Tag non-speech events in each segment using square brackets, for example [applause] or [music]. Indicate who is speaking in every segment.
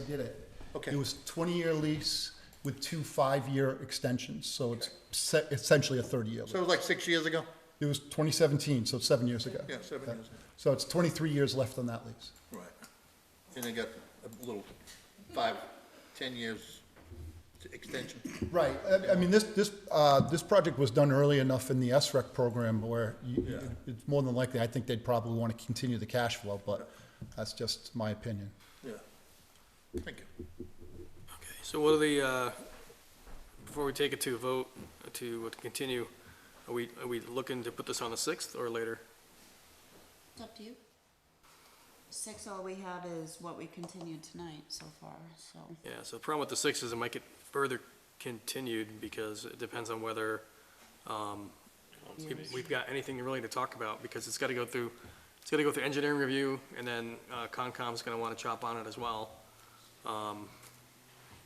Speaker 1: did it.
Speaker 2: Okay.
Speaker 1: It was twenty-year lease with two five-year extensions, so it's
Speaker 2: Okay.
Speaker 1: se- essentially a thirty-year
Speaker 2: So it
Speaker 1: lease.
Speaker 2: was like six years ago?
Speaker 1: It was twenty seventeen, so seven years ago.
Speaker 2: Yeah, seven years ago.
Speaker 1: So it's twenty-three years left on that lease.
Speaker 2: Right. And they got a little five, ten years extension.
Speaker 1: Right, I, I mean, this, this, uh, this project was done early enough in the SREC program where you,
Speaker 2: Yeah.
Speaker 1: it's more than likely, I think they'd probably want to continue the cash flow, but that's just my opinion.
Speaker 2: Yeah. Thank you.
Speaker 3: Okay, so what are the, uh, before we take it to a vote, to to continue, are we, are we looking to put this on the 6th or later?
Speaker 4: It's up to you. Six, all we had is what we continued tonight so far, so.
Speaker 3: Yeah, so the problem with the 6th is it might get further continued because it depends on whether um, we- we've got anything really to talk about because it's got to go through, it's got to go through engineering review and then uh, Concom's going to want to chop on it as well. Um,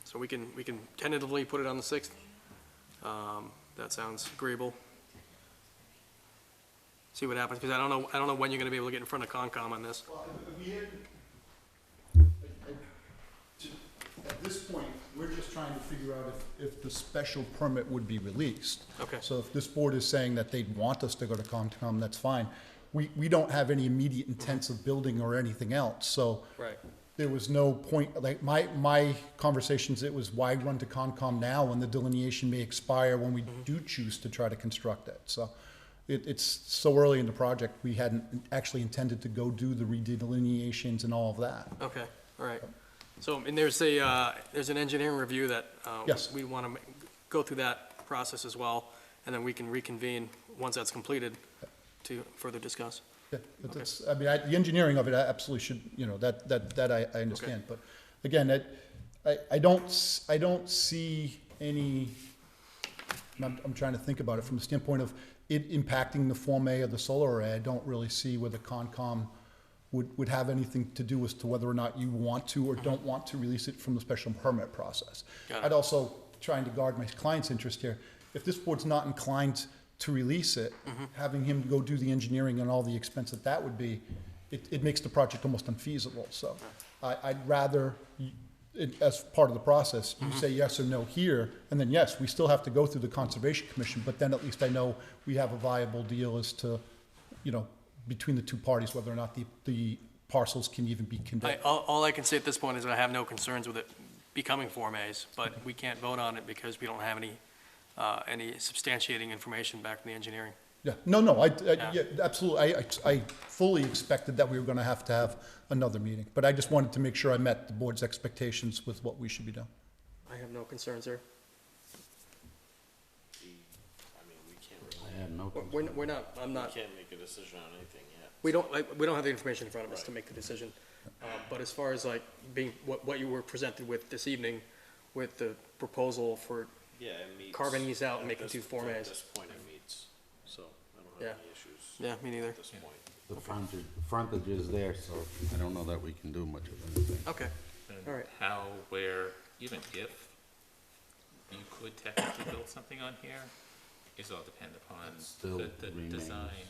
Speaker 3: So we can, we can tentatively put it on the 6th. Um, That sounds agreeable. See what happens, because I don't know, I don't know when you're going to be able to get in front of Concom on this.
Speaker 1: Well, if- if we had- I- I- to- At this point, we're just trying to figure out if, if the special permit would be released.
Speaker 3: Okay.
Speaker 1: So if this board is saying that they'd want us to go to Concom, that's fine. We, we don't have any immediate intents of building or anything else, so.
Speaker 3: Right.
Speaker 1: There was no point, like, my, my conversations, it was why run to Concom now when the delineation may expire when we do choose to try to construct it, so. It, it's so early in the project, we hadn't actually intended to go do the redelineations and all of that.
Speaker 3: Okay, all right. So, and there's a, uh, there's an engineering review that uh,
Speaker 1: Yes.
Speaker 3: we want to go through that process as well, and then we can reconvene once that's completed to further discuss.
Speaker 1: Yeah, but that's, I mean, I, the engineering of it, I absolutely should, you know, that, that, that I, I understand, but again, it, I, I don't, s- I don't see any, and I'm, I'm trying to think about it from the standpoint of it impacting the Form A of the solar array, I don't really see where the Concom would, would have anything to do as to whether or not you want to or don't want to release it from the special permit process.
Speaker 3: Mm-hmm. Got it.
Speaker 1: I'd also, trying to guard my client's interest here, if this board's not inclined to release it,
Speaker 3: Mm-hmm.
Speaker 1: having him go do the engineering and all the expense that that would be, it, it makes the project almost unfeasible, so. I, I'd rather, you- it, as part of the process, you
Speaker 3: Mm-hmm.
Speaker 1: say yes or no here, and then yes, we still have to go through the Conservation Commission, but then at least I know we have a viable deal as to, you know, between the two parties, whether or not the, the parcels can even be
Speaker 3: I,
Speaker 1: conveyed.
Speaker 3: all, all I can say at this point is that I have no concerns with it becoming Form As, but we can't vote on it because we don't have any, uh, any substantiating information back from the engineering.
Speaker 1: Yeah, no, no, I, I,
Speaker 3: Yeah.
Speaker 1: yeah, absolutely, I, I- I fully expected that we were gonna have to have another meeting, but I just wanted to make sure I met the board's expectations with what we should be doing.
Speaker 3: I have no concerns there.
Speaker 5: I have no,
Speaker 3: We're, we're not, I'm not,
Speaker 5: can't make a decision on anything yet.
Speaker 3: we don't, like, we don't have the information in front of us to make the decision. Uh, But as far as like being, what, what you were presented with this evening with the proposal for
Speaker 5: Yeah, it meets.
Speaker 3: Carving these out and
Speaker 5: at
Speaker 3: making
Speaker 5: this-
Speaker 3: two Form
Speaker 5: At
Speaker 3: As.
Speaker 5: this point, it meets, so I don't
Speaker 3: Yeah.
Speaker 5: have any issues
Speaker 3: Yeah, me neither.
Speaker 5: at this point.
Speaker 6: The frontage, frontage is there, so I don't know that we can do much of anything.
Speaker 3: Okay, all
Speaker 7: And
Speaker 3: right.
Speaker 7: how, where, even if you could technically build something on here, is all depend upon
Speaker 6: That still
Speaker 7: the, the design.
Speaker 6: remains.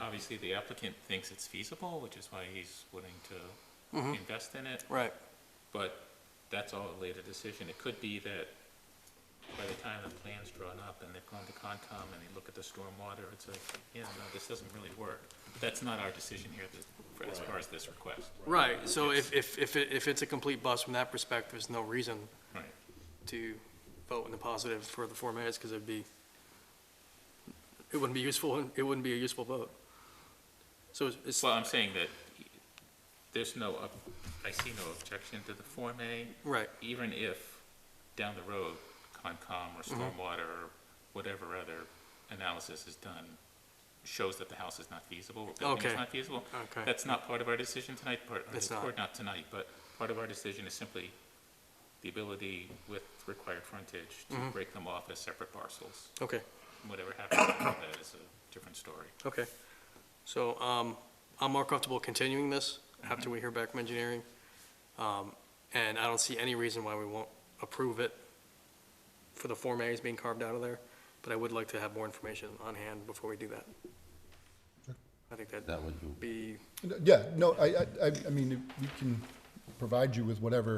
Speaker 7: Obviously, the applicant thinks it's feasible, which is why he's willing to
Speaker 3: Mm-hmm.
Speaker 7: invest in it,
Speaker 3: Right,
Speaker 7: but that's all a later decision. It could be that by the time the plan's drawn up and they've gone to Concom and they look at the stormwater, it's like, yeah, no, this doesn't really work. But that's not our decision here that- for- as far as this request.
Speaker 3: right, so if, if, if, it- if it's a complete bust from that perspective, there's no reason
Speaker 7: Right.
Speaker 3: to vote in the positive for the Form As, because it'd be, it wouldn't be useful, [laughs] it wouldn't be a useful vote. So it's- it's,
Speaker 7: Well, I'm saying that there's no, ob- I see no objection to the Form A,
Speaker 3: right,
Speaker 7: even if down the road, Concom or
Speaker 3: Mm-hmm.
Speaker 7: Stormwater or whatever other analysis is done shows that the house is not feasible or building
Speaker 3: Okay.
Speaker 7: is not feasible.
Speaker 3: Okay.
Speaker 7: That's not part of our decision tonight, part,
Speaker 3: It's
Speaker 7: or
Speaker 3: not.
Speaker 7: not tonight, but part of our decision is simply the ability with required frontage to
Speaker 3: Mm-hmm.
Speaker 7: break them off as separate parcels.
Speaker 3: okay,
Speaker 7: Whatever happens after that is a different story.
Speaker 3: okay. So, um, I'm more comfortable continuing this after we hear back from engineering. Um, and I don't see any reason why we won't approve it for the Form As being carved out of there, but I would like to have more information on hand before we do that. I think that
Speaker 6: That would do.
Speaker 3: be
Speaker 1: Yeah, no, I, I, I- I mean, we can provide you with whatever